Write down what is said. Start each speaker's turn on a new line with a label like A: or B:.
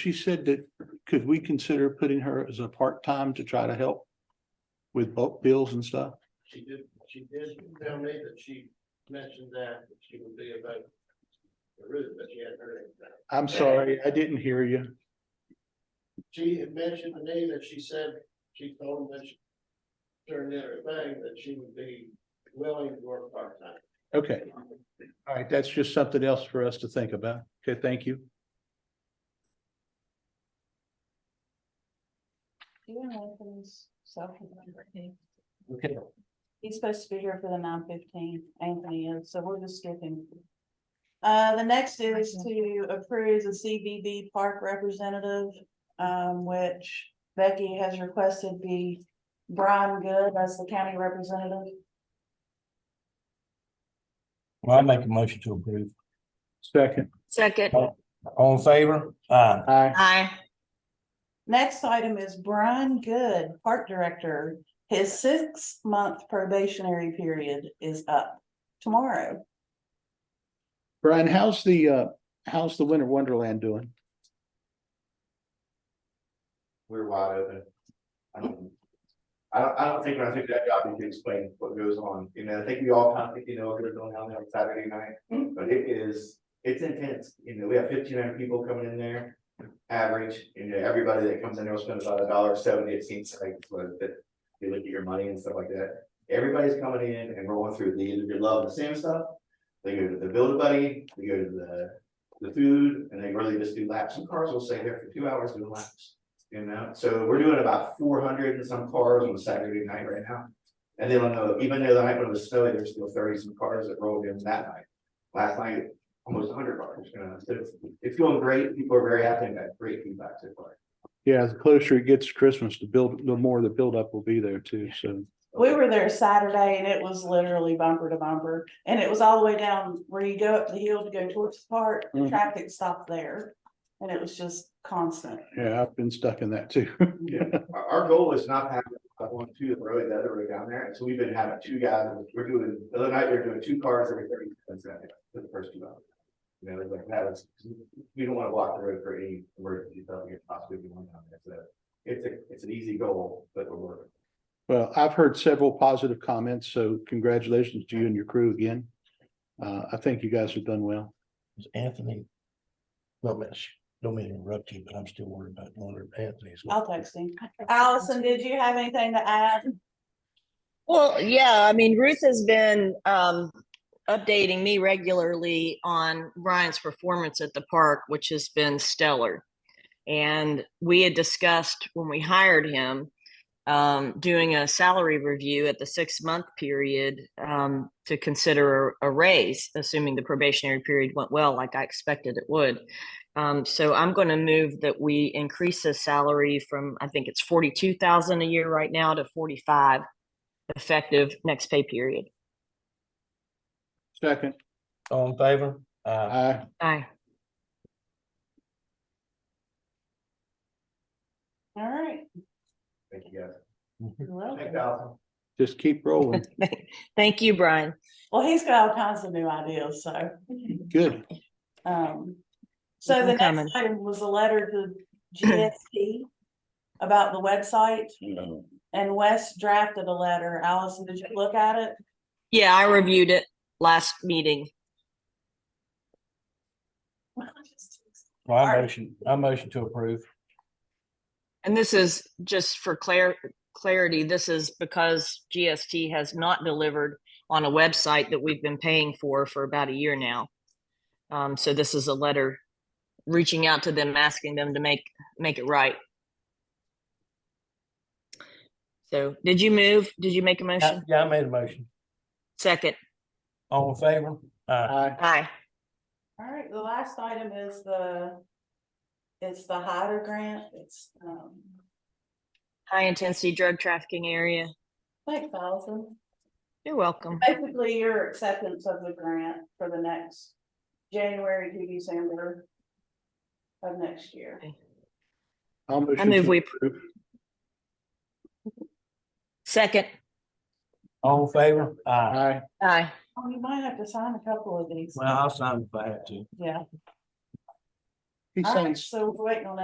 A: She said that, could we consider putting her as a part-time to try to help with bulk bills and stuff?
B: She did, she did tell me that she mentioned that, that she would be about the route, but she hadn't heard anything.
A: I'm sorry, I didn't hear you.
B: She had mentioned to me that she said, she told me that she turned in her thing, that she would be willing to work part-time.
A: Okay, all right, that's just something else for us to think about. Okay, thank you.
C: You and Anthony's self-remembering.
A: Okay.
C: He's supposed to be here for the nine fifteen, Anthony is, so we'll just skip him. Uh, the next is to approve the CBB park representative, um, which Becky has requested be Brian Good as the county representative.
D: Well, I make a motion to approve.
A: Second.
E: Second.
D: All in favor? Aye.
A: Aye.
E: Aye.
C: Next item is Brian Good, park director. His six-month probationary period is up tomorrow.
A: Brian, how's the, uh, how's the Winter Wonderland doing?
F: we're wide open. I don't, I don't, I don't think, when I think that job, you can explain what goes on, you know, I think we all kind of, think, you know, we're going down there on Saturday night. But it is, it's intense, you know, we have fifteen hundred people coming in there, average, you know, everybody that comes in there will spend about a dollar seventy, it seems like, but that. You look at your money and stuff like that, everybody's coming in and rolling through, they either love the same stuff. They go to the build a buddy, they go to the, the food, and they really just do laps, and cars will stay there for two hours doing laps. You know, so we're doing about four hundred and some cars on Saturday night right now. And then on the, even though the night when it was snowy, there's still thirty some cars that rolled in that night. Last night, almost hundred cars, you know, so it's, it's going great. People are very happy and got great feedback so far.
A: Yeah, the closer it gets to Christmas, the build, the more the buildup will be there too, so.
C: We were there Saturday and it was literally bumper to bumper, and it was all the way down where you go up the hill to go towards the park, the
A: Mhm.
C: traffic stopped there. And it was just constant.
A: Yeah, I've been stuck in that too.
F: Yeah, our, our goal is not to have one, two, the road, the other road down there, and so we've been having two guys, we're doing, the other night, we we're doing two cars every thirty minutes, uh, for the first two hours. You know, like that was, we don't wanna block the road for any emergency, so we could possibly be one down there, so. It's a, it's an easy goal, but we're working.
A: Well, I've heard several positive comments, so congratulations to you and your crew again. Uh, I think you guys have done well.
D: Anthony. No, miss, don't mean to interrupt you, but I'm still worried about one of Anthony's.
C: I'll text him. Allison, did you have anything to add?
E: Well, yeah, I mean, Ruth has been um, updating me regularly on Ryan's performance at the park, which has been stellar. And we had discussed when we hired him um, doing a salary review at the six month period um, to consider a, a raise, assuming the probationary period went well, like I expected it would. Um, so I'm going to move that we increase his salary from I think it's forty two thousand a year right now to forty five effective next pay period.
A: Second,
D: All in favor? Uh, Aye.
A: I,
E: Aye.
C: All right.
F: Thank you guys.
C: you're welcome.
F: Thank you.
A: just keep rolling.
E: Thank you, Brian.
C: Well, he's got all kinds of new ideas, so.
A: Good.
C: Um, so the
E: Coming.
C: next item was a letter to GST about the website. And Wes drafted a letter. Allison, did you look at it?
E: Yeah, I reviewed it last meeting.
D: Well, I
C: Alright.
D: motion, I motion to approve.
E: And this is just for clar- clarity, this is because GST has not delivered on a website that we've been paying for for about a year now. Um, so this is a letter reaching out to them, asking them to make, make it right. So did you move? Did you make a
D: Yeah,
E: motion?
D: yeah, I made a motion.
E: Second.
D: All in favor? Aye.
A: I,
E: Aye.
C: All right, the last item is the, it's the HIDER grant. It's, um,
E: High intensity drug trafficking area.
C: like thousand.
E: You're welcome.
C: Basically, your acceptance of the grant for the next January to December of next year.
A: I'll
E: I
A: motion
E: move
A: to
E: we
A: approve.
E: second.
D: All in favor? Aye.
A: Aye.
E: Aye.
C: Oh, you might have to sign a couple of these.
D: Well, I'll sign if I have to.
C: Yeah.
A: He
C: All right,
A: sounds
C: so we're waiting on